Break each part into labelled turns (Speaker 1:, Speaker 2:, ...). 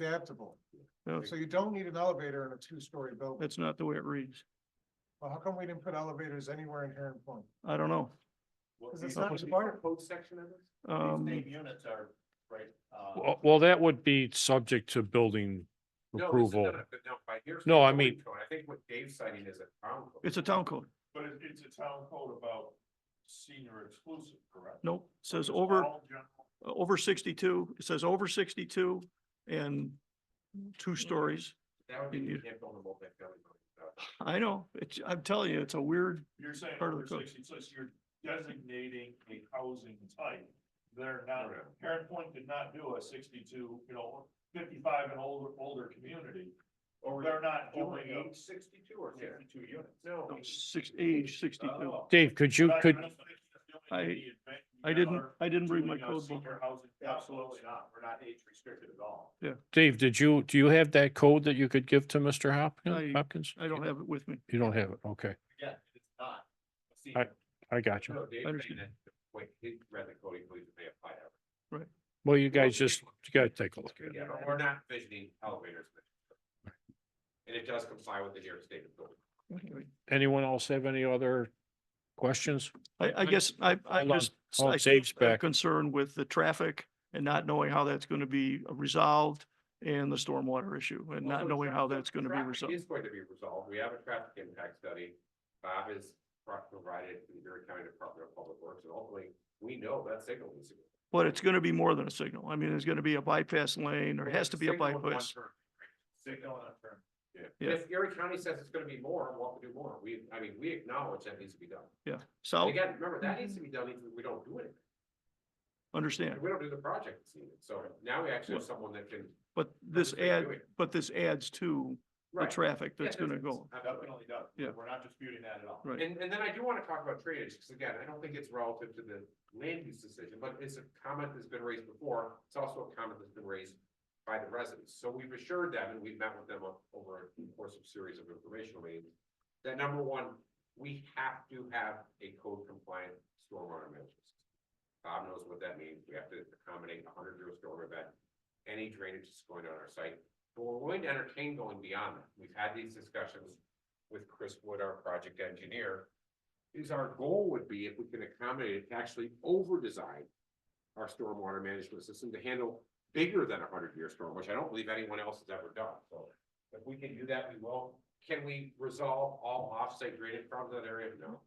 Speaker 1: adaptable.
Speaker 2: No,
Speaker 1: So you don't need an elevator in a two-story building.
Speaker 2: that's not the way it reads.
Speaker 1: Well, how come we didn't put elevators anywhere in Heron Point?
Speaker 2: I don't know.
Speaker 1: Because it's not required.
Speaker 3: Code section of this?
Speaker 2: Um,
Speaker 3: units are, right, uh.
Speaker 4: Well, well, that would be subject to building approval. No, I mean-
Speaker 3: I think what Dave's citing is a town code.
Speaker 2: it's a town code.
Speaker 3: But it, it's a town code about senior exclusive, correct?
Speaker 2: Nope, says
Speaker 3: It's
Speaker 2: over, uh,
Speaker 3: all general.
Speaker 2: over sixty-two, it says over sixty-two and two stories.
Speaker 3: That would be,
Speaker 2: You-
Speaker 3: you can't build a multi-family building. without it.
Speaker 2: I know, it's, I'm telling you, it's a weird,
Speaker 5: You're saying
Speaker 2: Part of
Speaker 5: over
Speaker 2: the code.
Speaker 5: sixty, so you're designating a housing type. They're not,
Speaker 3: Correct.
Speaker 5: Heron Point did not do a sixty-two, you know, fifty-five and older, older community.
Speaker 3: Or
Speaker 5: They're not
Speaker 3: Over
Speaker 5: doing a.
Speaker 3: age sixty-two or sixty-two units? No.
Speaker 2: six, age sixty-two.
Speaker 3: Oh.
Speaker 4: Dave, could you,
Speaker 5: Not
Speaker 4: could,
Speaker 5: doing a-
Speaker 2: I-
Speaker 5: doing a-
Speaker 2: I didn't, I didn't read my
Speaker 3: uh,
Speaker 5: doing a
Speaker 2: code book.
Speaker 5: Senior housing.
Speaker 3: Absolutely not. We're not age restricted at all.
Speaker 4: Dave, did you, do you have that code that you could give to Mr. Hopkins?
Speaker 2: I-
Speaker 4: Hopkins?
Speaker 2: I don't have it with me.
Speaker 4: You don't have it. Okay,
Speaker 3: Again, it's not. a
Speaker 4: I-
Speaker 3: senior.
Speaker 4: I got you.
Speaker 3: No, Dave's saying
Speaker 2: understand.
Speaker 3: that, wait, he read the code, he believes that they apply to everything.
Speaker 4: Well, you guys just, you gotta take a look at it.
Speaker 3: Yeah, but we're not envisioning elevators. And it does comply with the New York State of Building.
Speaker 2: Anyway,
Speaker 4: Anyone else have any other questions?
Speaker 2: I, I guess I, I
Speaker 4: Hold on.
Speaker 2: just.
Speaker 4: Hold
Speaker 2: I
Speaker 4: Dave's
Speaker 2: still have
Speaker 4: back.
Speaker 2: Concern with the traffic and not knowing how that's going to be resolved and the stormwater issue and not
Speaker 3: Also,
Speaker 2: knowing how
Speaker 3: traffic-
Speaker 2: that's going to be
Speaker 3: traffic
Speaker 2: resolved.
Speaker 3: Is going to be resolved. We have a traffic impact study. Bob has pro- provided to the Erie County Department of Public Works, and ultimately, we know that signal is.
Speaker 2: But it's going to be more than a signal. I mean, there's going to be a bypass lane. There has to be a
Speaker 3: Signal and one
Speaker 2: bypass.
Speaker 3: turn. Signal and a turn.
Speaker 2: Yeah.
Speaker 3: Yeah. If Erie County says it's gonna be more, we'll have to do more. We, I mean, we acknowledge that needs to be done.
Speaker 2: Yeah.
Speaker 3: And
Speaker 2: South,
Speaker 3: again, remember, that needs to be done if we don't do anything.
Speaker 2: understand.
Speaker 3: And we don't do the project this evening. So now we actually have someone that can.
Speaker 2: But this
Speaker 3: Understand
Speaker 2: add,
Speaker 3: doing it.
Speaker 2: but this adds to the
Speaker 3: Right.
Speaker 2: traffic
Speaker 3: Yeah,
Speaker 2: that's gonna
Speaker 3: it's-
Speaker 2: go.
Speaker 3: it's Definitely done.
Speaker 2: Yeah.
Speaker 3: We're not disputing that at all.
Speaker 2: Right.
Speaker 3: And, and then I do want to talk about drainage, because again, I don't think it's relative to the land use decision, but it's a comment that's been raised before. It's also a comment that's been raised by the residents. So we've assured them, and we've met with them o- over a course of series of informational meetings, that number one, we have to have a code compliant stormwater management. system. Bob knows what that means. We have to accommodate a hundred year storm event, any drainage that's going on our site. But we're willing to entertain going beyond that. We've had these discussions with Chris Wood, our project engineer. Is our goal would be if we can accommodate it, to actually over-design our stormwater management system to handle bigger than a hundred-year storm, which I don't believe anyone else has ever done, so. If we can do that, we will. Can we resolve all off-site drainage problems in that area? No.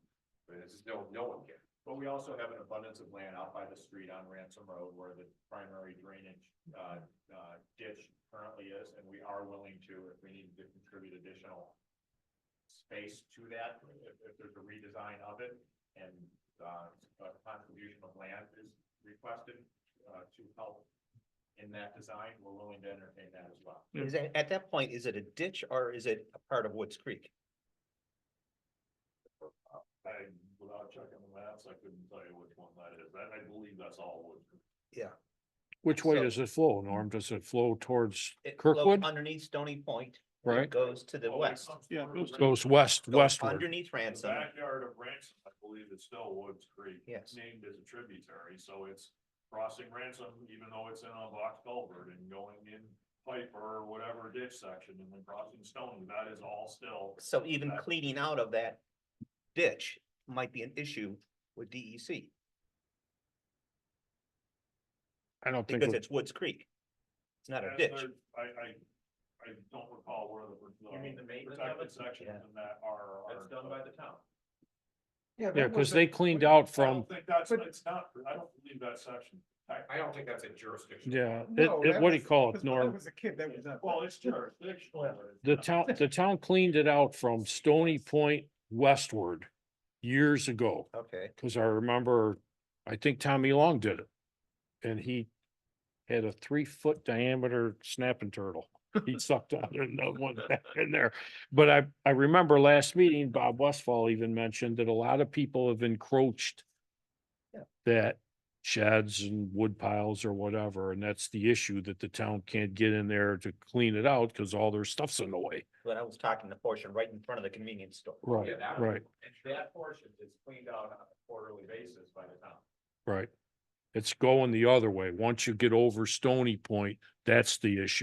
Speaker 3: I mean, this is no, no one can.
Speaker 5: But we also have an abundance of land out by the street on Ransom Road where the primary drainage, uh, uh, ditch currently is, and we are willing to, if we need to contribute additional space to that, if, if there's a redesign of it, and, uh, a contribution of land is requested, uh, to help in that design, we're willing to entertain that as well.
Speaker 2: Yeah.
Speaker 6: Is it, at that point, is it a ditch or is it a part of Woods Creek?
Speaker 5: I, without checking the maps, I couldn't tell you which one that is, I, I believe that's all Wood Creek.
Speaker 4: Which way
Speaker 6: So-
Speaker 4: does it flow, Norm? Does it flow towards
Speaker 6: It flows
Speaker 4: Kirkwood?
Speaker 6: Underneath Stony Point. and it
Speaker 4: Right?
Speaker 6: Goes to the
Speaker 5: Oh, it
Speaker 6: west.
Speaker 5: comes
Speaker 2: Yeah, it
Speaker 5: through
Speaker 2: goes
Speaker 5: Ransom.
Speaker 4: Goes west,
Speaker 6: goes
Speaker 4: westward.
Speaker 6: Underneath
Speaker 5: The
Speaker 6: Ransom.
Speaker 5: backyard of Ransom, I believe it's still Woods Creek.
Speaker 6: Yes.
Speaker 5: Named as a tributary, so it's crossing Ransom, even though it's in a box culvert and going in Piper or whatever ditch section and then crossing Stony, that is all still.
Speaker 6: So even
Speaker 5: Back-
Speaker 6: cleaning out of that ditch might be an issue with E DEC
Speaker 4: I don't think,
Speaker 6: because
Speaker 4: it-
Speaker 6: it's Woods Creek. It's not a
Speaker 5: And
Speaker 6: ditch.
Speaker 5: there- I, I, I don't recall where the. uh,
Speaker 3: You mean the maintenance of
Speaker 5: Protected
Speaker 3: it?
Speaker 5: sections
Speaker 6: Yeah.
Speaker 5: in that are. are-
Speaker 3: the town.
Speaker 4: yeah,
Speaker 1: that
Speaker 4: because
Speaker 1: wasn't-
Speaker 4: they cleaned out
Speaker 5: I
Speaker 4: from,
Speaker 5: don't think that's,
Speaker 1: But-
Speaker 5: it's not, I don't believe that section.
Speaker 3: I don't think that's a jurisdiction.
Speaker 4: yeah, it,
Speaker 1: No,
Speaker 4: it,
Speaker 1: that
Speaker 4: what do you
Speaker 1: was-
Speaker 4: call it,
Speaker 1: because when I
Speaker 4: Norm?
Speaker 1: was a kid, that was not.
Speaker 5: Well, it's jurisdictional. but it's
Speaker 4: The
Speaker 5: not-
Speaker 4: town, the town cleaned it out from Stony Point westward years ago,
Speaker 6: Okay.
Speaker 4: because I remember, I think Tommy Long did it. And he had a three-foot diameter snapping turtle. He sucked out another one back in there. But I, I remember last meeting, Bob Westfall even mentioned that a lot of people have encroached
Speaker 6: Yeah.
Speaker 4: that sheds and wood piles or whatever, and that's the issue that the town can't get in there to clean it out because all their stuff's in the way.
Speaker 6: But I was talking the portion right in front of the convenience store.
Speaker 4: Right,
Speaker 3: Yeah, that-
Speaker 4: right,
Speaker 3: And that portion is cleaned out on a quarterly basis by the town.
Speaker 4: right. It's going the other way. Once you get over Stony Point, that's the issue.